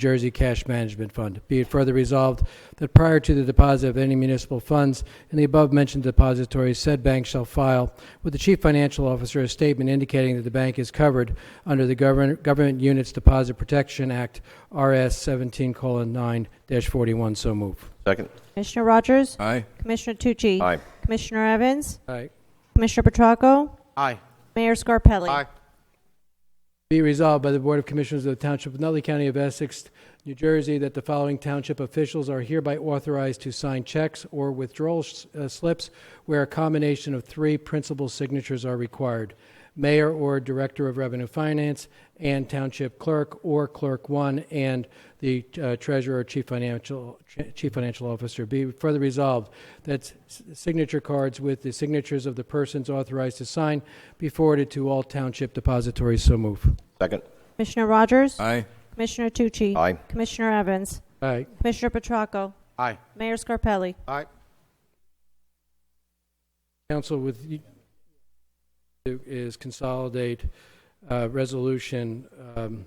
Jersey Cash Management Fund. Be it further resolved that prior to the deposit of any municipal funds in the above-mentioned depository, said bank shall file with the Chief Financial Officer a statement indicating that the bank is covered under the Govern- Government Units Deposit Protection Act, RS 17:9-41. So move. Second. Commissioner Rogers? Aye. Commissioner Tucci? Aye. Commissioner Evans? Aye. Commissioner Petracco? Aye. Mayor Scarpelli? Be resolved by the Board of Commissioners of the Township of Nutley County of Essex, New Jersey, that the following township officials are hereby authorized to sign checks or withdrawal s- uh, slips where a combination of three principal signatures are required. Mayor or Director of Revenue Finance and Township Clerk or Clerk One and the uh, Treasurer or Chief Financial, Chief Financial Officer. Be further resolved that s- signature cards with the signatures of the persons authorized to sign be forwarded to all township depositories. So move. Second. Commissioner Rogers? Aye. Commissioner Tucci? Aye. Commissioner Evans? Aye. Commissioner Petracco? Aye. Mayor Scarpelli? Aye. Council with you is consolidate uh, Resolution um,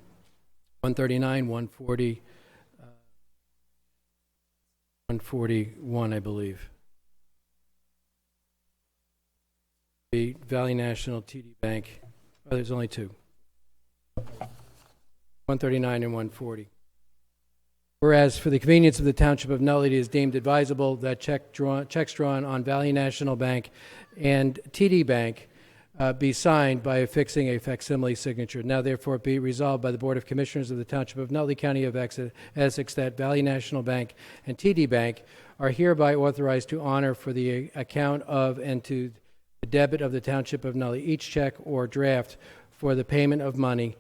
139, 140, uh, 141, I believe. The Valley National TD Bank, oh, there's only two. 139 and 140. Whereas for the convenience of the Township of Nutley, it is deemed advisable that check drawn, checks drawn on Valley National Bank and TD Bank uh, be signed by affixing a facsimile signature. Now therefore be resolved by the Board of Commissioners of the Township of Nutley County of Ex- Essex that Valley National Bank and TD Bank are hereby authorized to honor for the account of and to the debit of the Township of Nutley each check or draft for the payment of money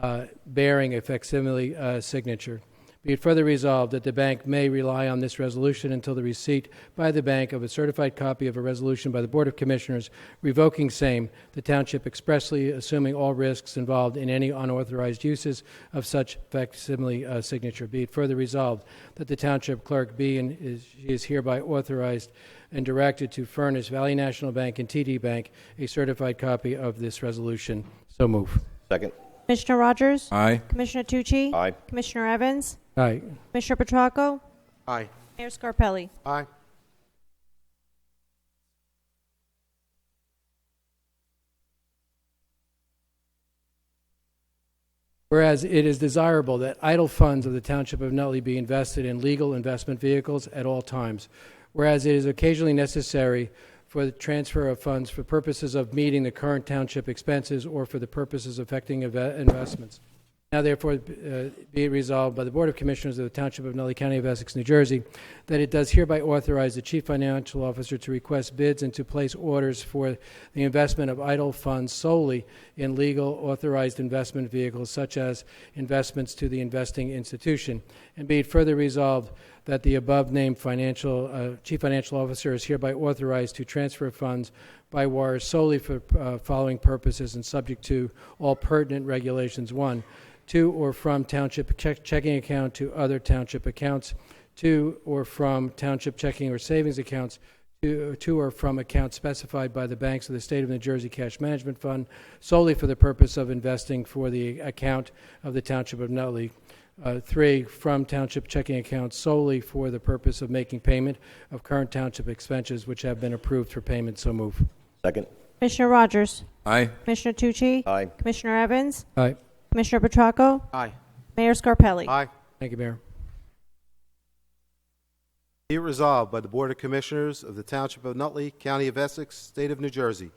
uh, bearing a facsimile uh, signature. Be it further resolved that the bank may rely on this resolution until the receipt by the bank of a certified copy of a resolution by the Board of Commissioners revoking same, the township expressly assuming all risks involved in any unauthorized uses of such facsimile uh, signature. Be it further resolved that the township clerk be and is, she is hereby authorized and directed to furnish Valley National Bank and TD Bank a certified copy of this resolution. So move. Second. Commissioner Rogers? Aye. Commissioner Tucci? Aye. Commissioner Evans? All right. Commissioner Petracco? Aye. Mayor Scarpelli? Aye. Whereas it is desirable that idle funds of the Township of Nutley be invested in legal investment vehicles at all times. Whereas it is occasionally necessary for the transfer of funds for purposes of meeting the current township expenses or for the purposes affecting eve- investments. Now therefore uh, be it resolved by the Board of Commissioners of the Township of Nutley County of Essex, New Jersey, that it does hereby authorize the Chief Financial Officer to request bids and to place orders for the investment of idle funds solely in legal authorized investment vehicles such as investments to the investing institution. And be it further resolved that the above-named financial, uh, Chief Financial Officer is hereby authorized to transfer funds by wire solely for uh, following purposes and subject to all pertinent regulations. One, to or from township check- checking account to other township accounts, to or from township checking or savings accounts, to to or from accounts specified by the banks of the State of New Jersey Cash Management Fund solely for the purpose of investing for the account of the Township of Nutley. Uh, Three, from township checking accounts solely for the purpose of making payment of current township expenses which have been approved for payment. So move. Second. Commissioner Rogers? Aye. Commissioner Tucci? Aye. Commissioner Evans? All right. Commissioner Petracco? Aye. Mayor Scarpelli? Aye. Thank you, Mayor. Be it resolved by the Board of Commissioners of the Township of Nutley, County of Essex, State of New Jersey,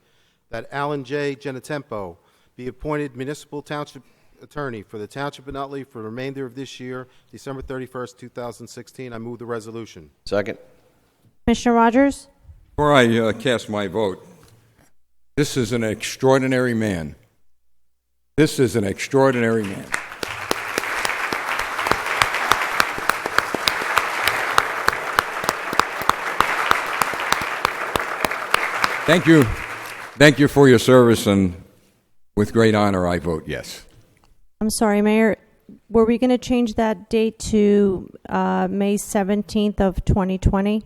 that Alan J. Genatempo be appointed Municipal Township Attorney for the Township of Nutley for the remainder of this year, December 31st, 2016. I move the resolution. Second. Commissioner Rogers? Before I uh, cast my vote, this is an extraordinary man. This is an extraordinary man. Thank you. Thank you for your service, and with great honor, I vote yes. I'm sorry, Mayor. Were we going to change that date to uh, May 17th of 2020?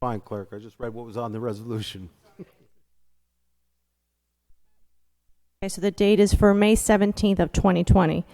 Fine, Clerk, I just read what was on the resolution. Okay, so the date is for May 17th of 2020.